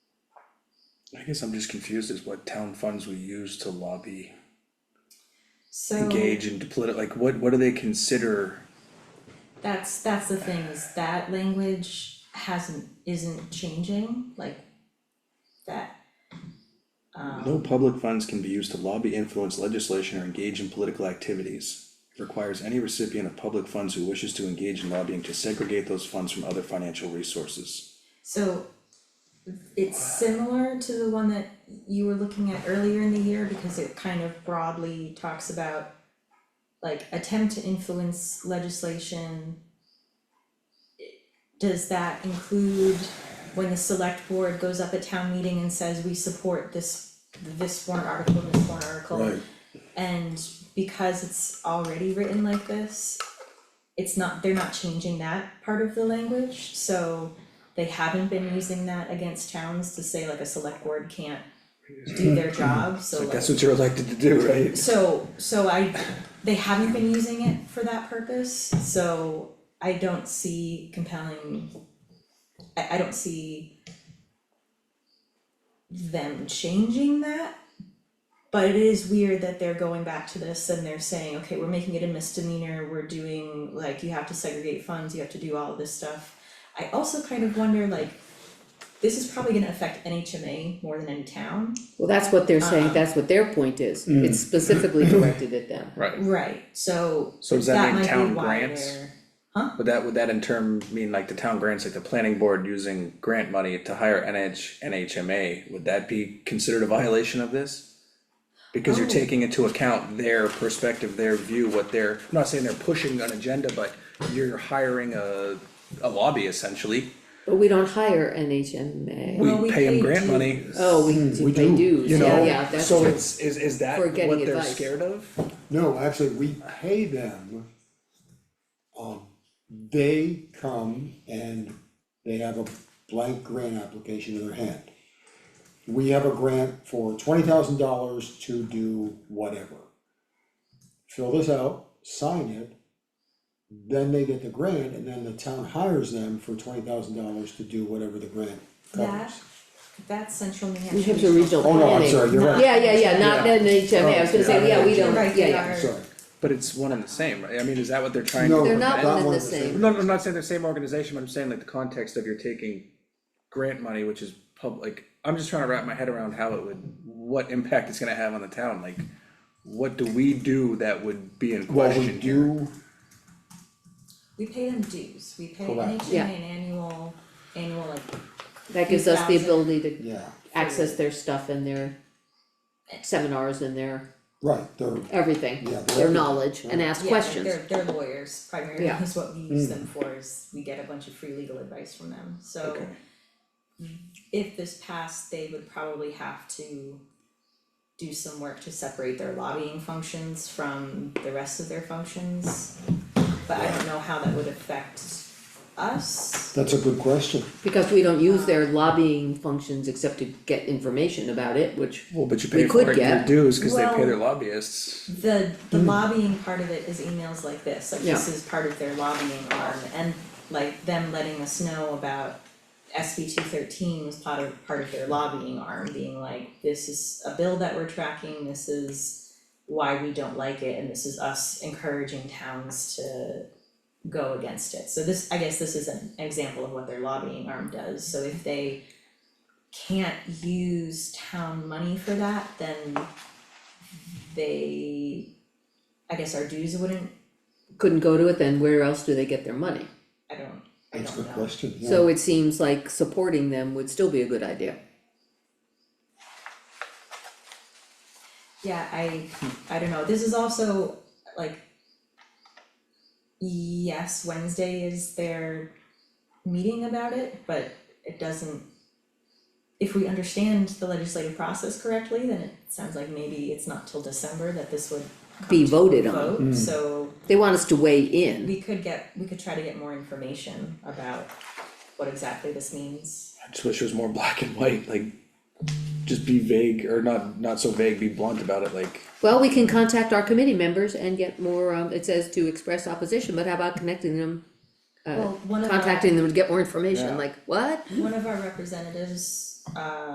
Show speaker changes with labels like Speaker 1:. Speaker 1: I guess I'm just confused as what town funds we use to lobby,
Speaker 2: So
Speaker 1: engage in politi- like what, what do they consider?
Speaker 2: that's that's the thing is that language hasn't isn't changing like that.
Speaker 1: No public funds can be used to lobby, influence legislation, or engage in political activities. Requires any recipient of public funds who wishes to engage in lobbying to segregate those funds from other financial resources.
Speaker 2: So it's similar to the one that you were looking at earlier in the year because it kind of broadly talks about like attempt to influence legislation. Does that include when the select board goes up at town meeting and says we support this this warrant article, this warrant article? And because it's already written like this, it's not, they're not changing that part of the language, so they haven't been using that against towns to say like a select board can't do their job, so like,
Speaker 3: That's what you're elected to do, right?
Speaker 2: so, so I, they haven't been using it for that purpose, so I don't see compelling, I, I don't see them changing that, but it is weird that they're going back to this and they're saying, okay, we're making it a misdemeanor, we're doing, like, you have to segregate funds, you have to do all of this stuff. I also kind of wonder, like, this is probably gonna affect NHMA more than any town.
Speaker 4: Well, that's what they're
Speaker 2: Uh-huh.
Speaker 4: saying, that's what their point is, it's specifically directed at them.
Speaker 1: Right.
Speaker 2: Right, so
Speaker 1: So does that
Speaker 2: that
Speaker 1: mean
Speaker 2: might
Speaker 1: town
Speaker 2: be why
Speaker 1: grants?
Speaker 2: they're,
Speaker 1: Would that, would that in term mean like the town grants, like the planning board using grant money to hire NH, NHMA, would that be considered a violation of this? Because you're
Speaker 2: Oh.
Speaker 1: taking into account their perspective, their view, what they're, I'm not saying they're pushing an agenda, but you're hiring a, a lobby essentially.
Speaker 4: But we don't hire NHMA,
Speaker 1: We
Speaker 2: Well, we
Speaker 1: pay them
Speaker 2: pay
Speaker 1: grant
Speaker 2: dues.
Speaker 1: money,
Speaker 4: oh, we do pay dues,
Speaker 1: you
Speaker 4: yeah,
Speaker 1: know,
Speaker 4: yeah, that's
Speaker 1: so
Speaker 4: true,
Speaker 1: it's, is, is that
Speaker 4: For
Speaker 1: what
Speaker 4: getting
Speaker 1: they're
Speaker 4: advice.
Speaker 1: scared of?
Speaker 3: No, actually, we pay them. Um, they come and they have a blank grant application in their hand. We have a grant for twenty thousand dollars to do whatever. Fill this out, sign it. Then they get the grant and then the town hires them for twenty thousand dollars to do whatever the grant
Speaker 2: That-
Speaker 3: covers.
Speaker 2: that's central New Hampshire.
Speaker 4: New Hampshire regional
Speaker 3: Oh,
Speaker 4: planning.
Speaker 3: no, I'm sorry, you're right,
Speaker 4: Yeah, yeah, yeah, not
Speaker 3: Yeah.
Speaker 4: NHMA, I was gonna say, yeah, we don't,
Speaker 2: Right,
Speaker 4: yeah,
Speaker 2: they
Speaker 4: yeah,
Speaker 2: are.
Speaker 3: sorry.
Speaker 1: But it's one and the same, right? I mean, is that what they're trying to
Speaker 3: No,
Speaker 4: they're
Speaker 1: prevent?
Speaker 4: not one and the same,
Speaker 1: No, no, I'm not saying they're same organization, but I'm saying like the context of you're taking grant money, which is public, I'm just trying to wrap my head around how it would, what impact it's gonna have on the town, like, what do we do that would be in
Speaker 3: Well, we
Speaker 1: question here?
Speaker 3: do,
Speaker 2: We pay them dues, we pay
Speaker 3: Correct.
Speaker 2: NHMA
Speaker 4: Yeah.
Speaker 2: an annual, annual like,
Speaker 4: that gives us the
Speaker 2: 2,000.
Speaker 4: ability to
Speaker 3: yeah,
Speaker 4: access their stuff and their seminars and their
Speaker 3: right, they're,
Speaker 4: everything,
Speaker 3: Yeah,
Speaker 4: their
Speaker 3: they're-
Speaker 4: knowledge, and ask
Speaker 2: yeah, like
Speaker 4: questions.
Speaker 2: they're, they're lawyers primarily
Speaker 4: Yeah. Mm.
Speaker 2: is what we use them for, is we get a bunch of free legal advice from them, so
Speaker 1: Okay.
Speaker 2: if this passed, they would probably have to do some work to separate their lobbying functions from the rest of their functions. But I don't know how that would affect us,
Speaker 3: that's a good question.
Speaker 4: Because we don't use their lobbying functions except to get information about it, which,
Speaker 1: Well, but you
Speaker 4: We
Speaker 1: pay
Speaker 4: could
Speaker 1: for it in your
Speaker 4: get-
Speaker 1: dues, cause they pay
Speaker 2: Well-
Speaker 1: their lobbyists,
Speaker 2: the the lobbying part of it is emails like this, like this is part of their lobbying arm and like them letting us know about SB two thirteen was part of part of their lobbying arm, being like, this is a bill that we're tracking, this is why we don't like it, and this is us encouraging towns to go against it. So this, I guess this is an example of what their lobbying arm does, so if they can't use town money for that, then they, I guess our dues wouldn't,
Speaker 4: couldn't go to it, then where else do they get their money?
Speaker 2: I don't, I
Speaker 3: That's a
Speaker 2: don't
Speaker 3: good
Speaker 2: know.
Speaker 3: question, yeah.
Speaker 4: So it seems like supporting them would still be a good idea.
Speaker 2: Yeah, I,
Speaker 3: Hmm.
Speaker 2: I don't know, this is also like. Yes, Wednesday is their meeting about it, but it doesn't. If we understand the legislative process correctly, then it sounds like maybe it's not till December that this would
Speaker 4: Be voted on.
Speaker 3: Hmm.
Speaker 2: vote, so
Speaker 4: They want us to weigh in.
Speaker 2: we could get, we could try to get more information about what exactly this means.
Speaker 1: I just wish it was more black and white, like, just be vague, or not, not so vague, be blunt about it, like,
Speaker 4: Well, we can contact our committee members and get more, um, it says to express opposition, but how about connecting them, uh,
Speaker 2: Well, one of our-
Speaker 4: contacting them to get more information,
Speaker 1: Yeah.
Speaker 4: like, what?
Speaker 2: One of our representatives, uh,